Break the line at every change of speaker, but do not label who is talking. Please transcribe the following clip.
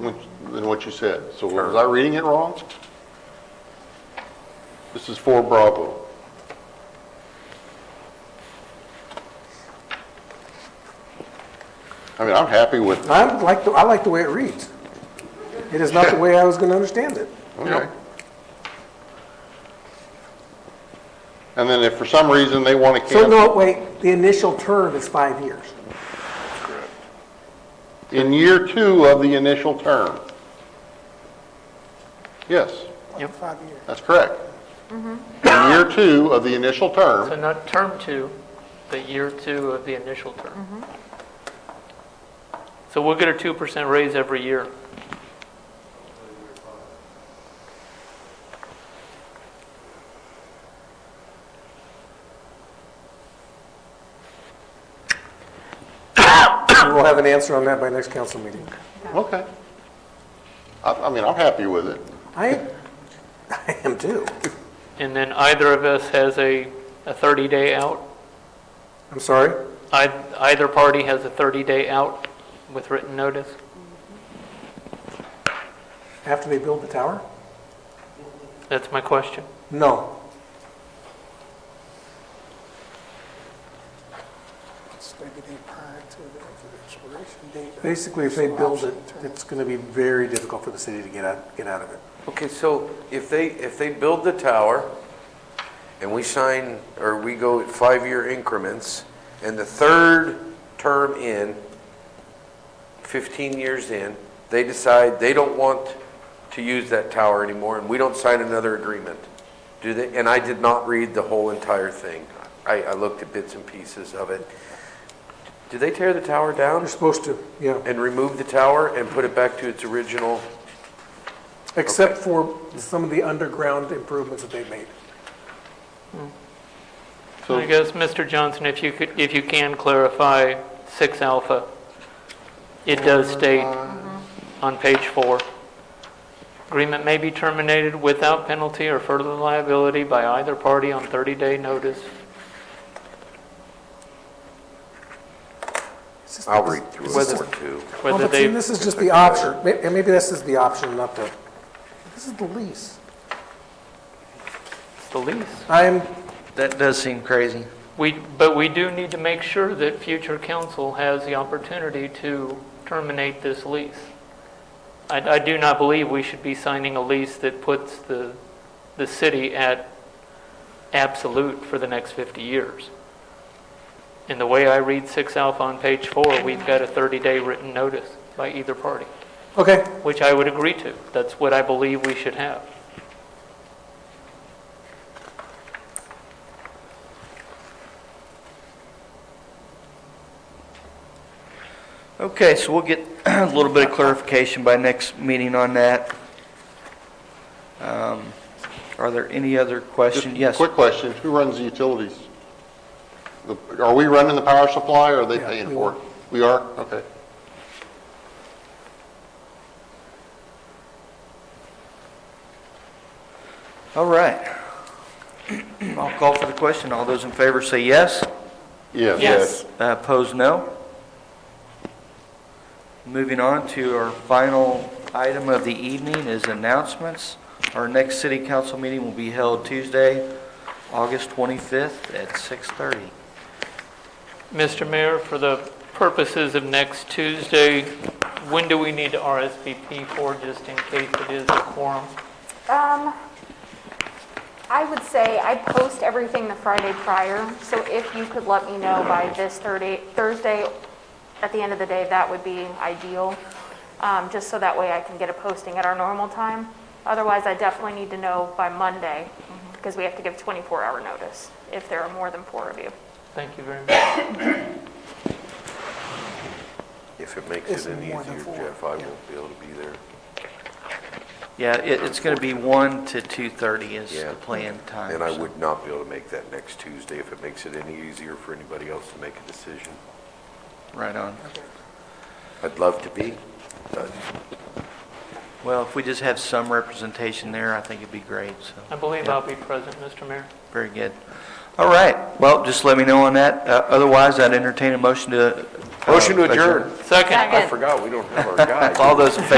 what- than what you said. So was I reading it wrong? This is for Bravo. I mean, I'm happy with it.
I like, the I like the way it reads. It is not the way I was going to understand it.
Okay. And then if for some reason they want to
So
cancel.
no, wait, the initial term is five years.
In year two of the initial term. Yes,
Yep.
Five years.
that's correct.
Mm-hmm.
In year two of the initial
So
term,
not term two, but year two of the initial term. So we'll get a 2% raise every year.
We'll have an answer on that by next council meeting.
okay. I, I mean, I'm happy with it.
I, I am too.
And then either of us has a, a 30-day out.
I'm sorry?
Ei- Either party has a 30-day out with written notice.
After they build the tower?
That's my question.
No. Basically, if they build it, it's going to be very difficult for the city to get out, get out of it.
Okay, so if they, if they build the tower and we sign, or we go at five-year increments, and the third term in, 15 years in, they decide they don't want to use that tower anymore and we don't sign another agreement, do they? And I did not read the whole entire thing. I, I looked at bits and pieces of it. Do they tear the tower down
They're supposed to, yeah.
and remove the tower and put it back to its original?
Except for some of the underground improvements that they've made.
I
So,
guess, Mr. Johnson, if you could, if you can clarify 6 alpha, it does state on page 4, agreement may be terminated without penalty or further liability by either party on 30-day notice.
It's just-
I'll read through
Whether-
it or two.
Well,
whether
Oh, but see,
they-
this is just the option, May- and maybe this is the option, not the, this is the lease.
The lease.
I'm,
That does seem crazy.
We, but we do need to make sure that future council has the opportunity to terminate this lease. I, I do not believe we should be signing a lease that puts the, the city at absolute for the next 50 years. And the way I read 6 Alpha on page 4, we've got a 30-day written notice by either party,
okay,
which I would agree to. That's what I believe we should have.
Okay, so we'll get a little bit of clarification by next meeting on that. Um, Are there any other questions?
just
Yes.
quick question, who runs the utilities? The- Are we running the power supply or are they
Yeah,
paying
we
for
are.
it? We are? Okay.
All right. I'll call for the question. All those in favor say yes.
Yes.
Uh, Opposed, no. Moving on to our final item of the evening is announcements. Our next city council meeting will be held Tuesday, August 25th at 6:30.
Mr. Mayor, for the purposes of next Tuesday, when do we need to RSVP for, just in case it is a quorum?
Um, I would say I post everything the Friday prior, so if you could let me know by this Thursday, Thursday, at the end of the day, that would be ideal, um, just so that way I can get a posting at our normal time. Otherwise, I definitely need to know by Monday, because we have to give 24-hour notice if there are more than four of you.
Thank you very much.
If it makes
It's
it any
more than
easier,
four,
Jeff, I won't be able to be there.
Yeah, it, it's going to be 1 to 2:30 is
Yeah.
the planned time.
And I
so-
would not be able to make that next Tuesday if it makes it any easier for anybody else to make a decision.
Right on.
I'd love to be, but
Well, if we just have some representation there, I think it'd be great,
I
so,
believe I'll be present, Mr. Mayor.
very good. All right, well, just let me know on that. Uh, Otherwise, I'd entertain a motion to. uh,
Motion to adjourn.
Second.
I forgot, we don't have our guy.
All those in favor